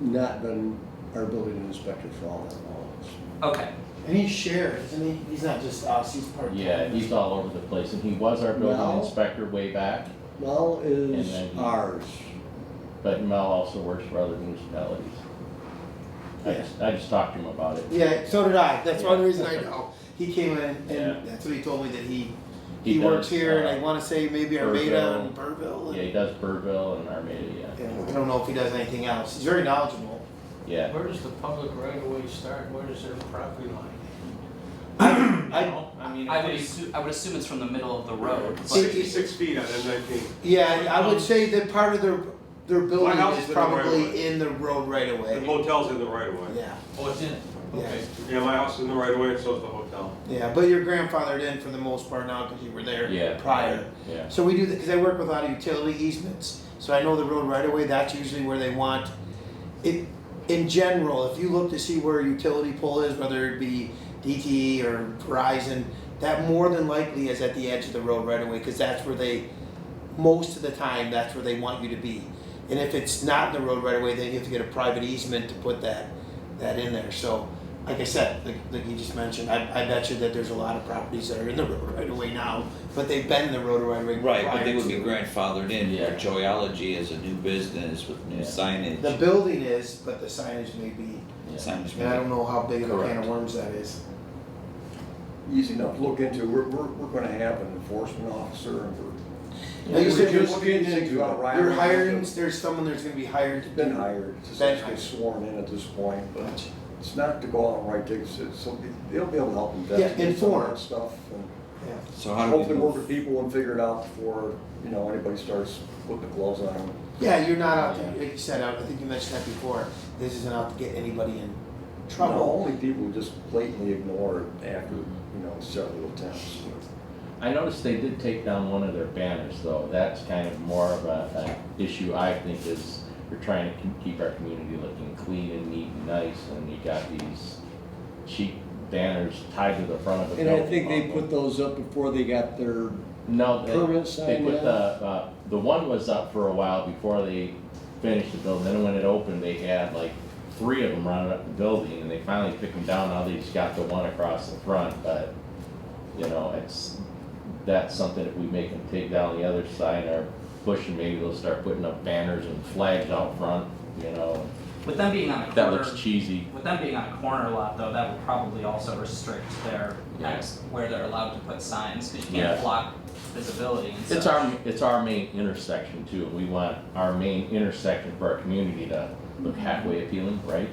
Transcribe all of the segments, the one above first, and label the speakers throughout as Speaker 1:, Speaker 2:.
Speaker 1: not been our building inspector for all that long. so.
Speaker 2: Okay,
Speaker 3: And he's shared, isn't he? He's not just us, he's part of.
Speaker 4: Yeah, he's all over the place, and he was our building
Speaker 1: Mel?
Speaker 4: inspector way back,
Speaker 1: Mel
Speaker 4: And
Speaker 1: is
Speaker 4: then-
Speaker 1: ours.
Speaker 4: but Mel also works for other municipalities. I
Speaker 3: Yeah.
Speaker 4: just, I just talked to him about it.
Speaker 3: Yeah, so did I. That's one
Speaker 4: Yeah.
Speaker 3: reason I know. He came in
Speaker 4: Yeah.
Speaker 3: and that's what he told me that he,
Speaker 4: He
Speaker 3: he works
Speaker 4: does,
Speaker 3: here and
Speaker 4: uh,
Speaker 3: I wanna say maybe Armada and Burville. and-
Speaker 4: Yeah, he does Burville and Armada, yeah,
Speaker 3: Yeah, I don't know if he does anything else. He's very knowledgeable.
Speaker 4: yeah.
Speaker 5: Where does the public right of way start? Where does their property line?
Speaker 3: I-
Speaker 5: You know, I mean,
Speaker 2: I would
Speaker 5: if
Speaker 2: assume, I would assume it's from the middle of the road, but,
Speaker 6: Sixty-six feet on M nineteen.
Speaker 3: Yeah, I would say that part of their, their building
Speaker 6: house
Speaker 3: is
Speaker 6: is in the right of
Speaker 3: probably
Speaker 6: way.
Speaker 3: in the road right away.
Speaker 6: The hotel's in the right of way.
Speaker 3: Yeah,
Speaker 5: they, oh, it's in, it. okay.
Speaker 6: Yeah, my house is in the right of way, and so is the hotel.
Speaker 3: yeah, but your grandfathered in for the most part now because you were there
Speaker 4: Yeah.
Speaker 3: prior.
Speaker 4: Yeah,
Speaker 3: So we do that because I work with a lot of utility easements. So I know the road right away. That's usually where they want it. In general, if you look to see where a utility pole is, whether it be DTE or Verizon, that more than likely is at the edge of the road right away because that's where they, most of the time, that's where they want you to be. And if it's not in the road right away, then you have to get a private easement to put that that in there. So. Like I said, like, like you just mentioned, I, I bet you that there's a lot of properties that are in the road right away now but they've been in the road right away.
Speaker 7: Right, but
Speaker 3: prior
Speaker 7: they would be
Speaker 3: to.
Speaker 7: grandfathered in,
Speaker 4: Yeah.
Speaker 7: for Joyology is a new business with new
Speaker 4: Yeah.
Speaker 3: The
Speaker 7: signage.
Speaker 3: building is, but the signage may be,
Speaker 4: yeah.
Speaker 7: Signage.
Speaker 3: and I don't know how big of a can
Speaker 4: Correct.
Speaker 3: of worms that is.
Speaker 1: Easy enough to look into. We're, we're, we're gonna have an enforcement officer and we're.
Speaker 3: Like you
Speaker 1: We're
Speaker 3: said, you're
Speaker 1: just
Speaker 3: looking
Speaker 1: getting into it.
Speaker 3: You're hiring, there's someone that's gonna be hired to
Speaker 1: It's Been
Speaker 3: do.
Speaker 1: hired, it's just
Speaker 3: Been
Speaker 1: get
Speaker 3: hired.
Speaker 1: sworn in at this point, but it's not to go out and write tickets, it's, so they'll be able to help investigate some of
Speaker 3: inform.
Speaker 1: that stuff. and
Speaker 3: Yeah.
Speaker 7: So how do we
Speaker 1: Hopefully work with
Speaker 7: move?
Speaker 1: people and figure it out before, you know, anybody starts putting the gloves on them.
Speaker 3: Yeah, you're not out to,
Speaker 4: Yeah.
Speaker 3: like you said, I I think you mentioned that before, this isn't out to get anybody in
Speaker 1: No,
Speaker 3: trouble.
Speaker 1: Only people who just blatantly ignore it after, you know, several attempts.
Speaker 4: I noticed they did take down one of their banners, though, that's kind of more of a, an issue I think is, we're trying to keep- keep our community looking clean and neat and nice, and you got these cheap banners tied to the front of the
Speaker 1: And
Speaker 4: building.
Speaker 1: I think they
Speaker 4: also.
Speaker 1: put those up before they got their,
Speaker 4: No, they,
Speaker 1: Permanent
Speaker 4: they
Speaker 1: sign,
Speaker 4: put
Speaker 1: yeah.
Speaker 4: the, uh, the one was up for a while before they finished the building, then when it opened, they had like three of them running up the building, and they finally took them down, now they just got the one across the front, but, you know, it's, that's something, if we make them take down the other side, or push, and maybe they'll start putting up banners and flags out front, you know,
Speaker 2: with them being on a
Speaker 4: that
Speaker 2: corner,
Speaker 4: looks cheesy.
Speaker 2: with them being on a corner lot though, that would probably also restrict their,
Speaker 4: Yeah.
Speaker 2: ex- where they're allowed to put signs, cause you
Speaker 4: Yeah.
Speaker 2: can't block visibility and stuff.
Speaker 4: It's our, it's our main intersection too, and we want our main intersection for our community to look halfway appealing, right?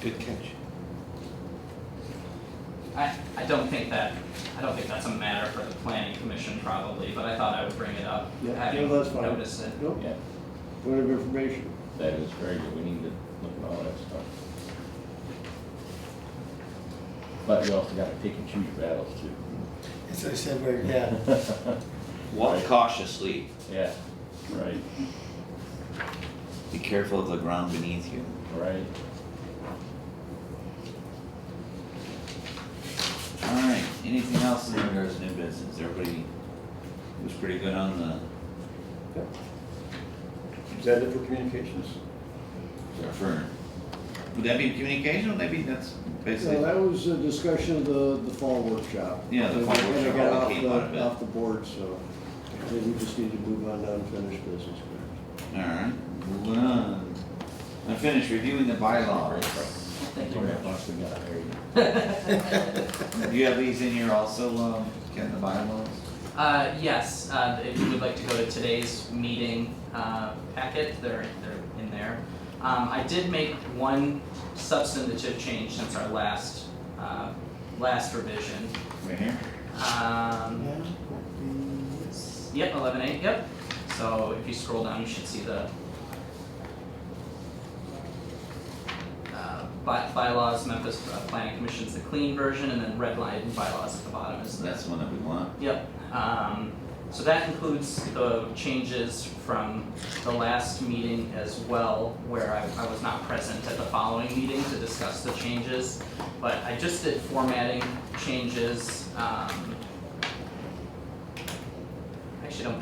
Speaker 7: Good catch.
Speaker 2: I, I don't think that, I don't think that's a matter for the planning commission probably, but I thought I would bring it up,
Speaker 1: Yeah,
Speaker 2: having
Speaker 1: yeah, that's fine.
Speaker 2: noticed it.
Speaker 1: Nope,
Speaker 4: Yeah.
Speaker 1: point of information.
Speaker 4: That is very good, we need to look at all that stuff. But we also gotta pick and choose your battles
Speaker 3: That's what I said, where, yeah.
Speaker 4: too.
Speaker 7: Walk
Speaker 4: Right.
Speaker 7: cautiously,
Speaker 4: Yeah, right,
Speaker 7: be careful of the ground beneath you.
Speaker 4: right.
Speaker 7: Alright, anything else in regards to new business? Everybody was pretty good on the,
Speaker 1: Is that it for communications?
Speaker 7: for, would that be communication? Would that be, that's
Speaker 1: No,
Speaker 7: basically,
Speaker 1: that was a discussion of the, the fall workshop.
Speaker 7: Yeah, the fall
Speaker 1: And it got
Speaker 7: workshop, we
Speaker 1: off
Speaker 7: came out of it.
Speaker 1: the, off the board, so I think we just need to move on to unfinished business.
Speaker 7: alright, moving on. Unfinished reviewing the bylaws.
Speaker 2: Thank you very much.
Speaker 4: Once we got our area.
Speaker 7: Do you have these in here also, um, Ken, the bylaws?
Speaker 2: Uh, yes, uh, if you would like to go to today's meeting, uh, packet, they're, they're in there. Um, I did make one substantive change since our last, uh, last revision.
Speaker 7: Right here?
Speaker 2: Um,
Speaker 3: Yeah.
Speaker 2: yep, eleven eight, yep. So if you scroll down, you should see the uh, by, bylaws, Memphis uh, Planning Commission's the clean version, and then redlined bylaws at the bottom is the
Speaker 7: That's the one that we want.
Speaker 2: Yep, um, so that includes the changes from the last meeting as well, where I, I was not present at the following meeting to discuss the changes. But I just did formatting changes, um. Actually, I don't think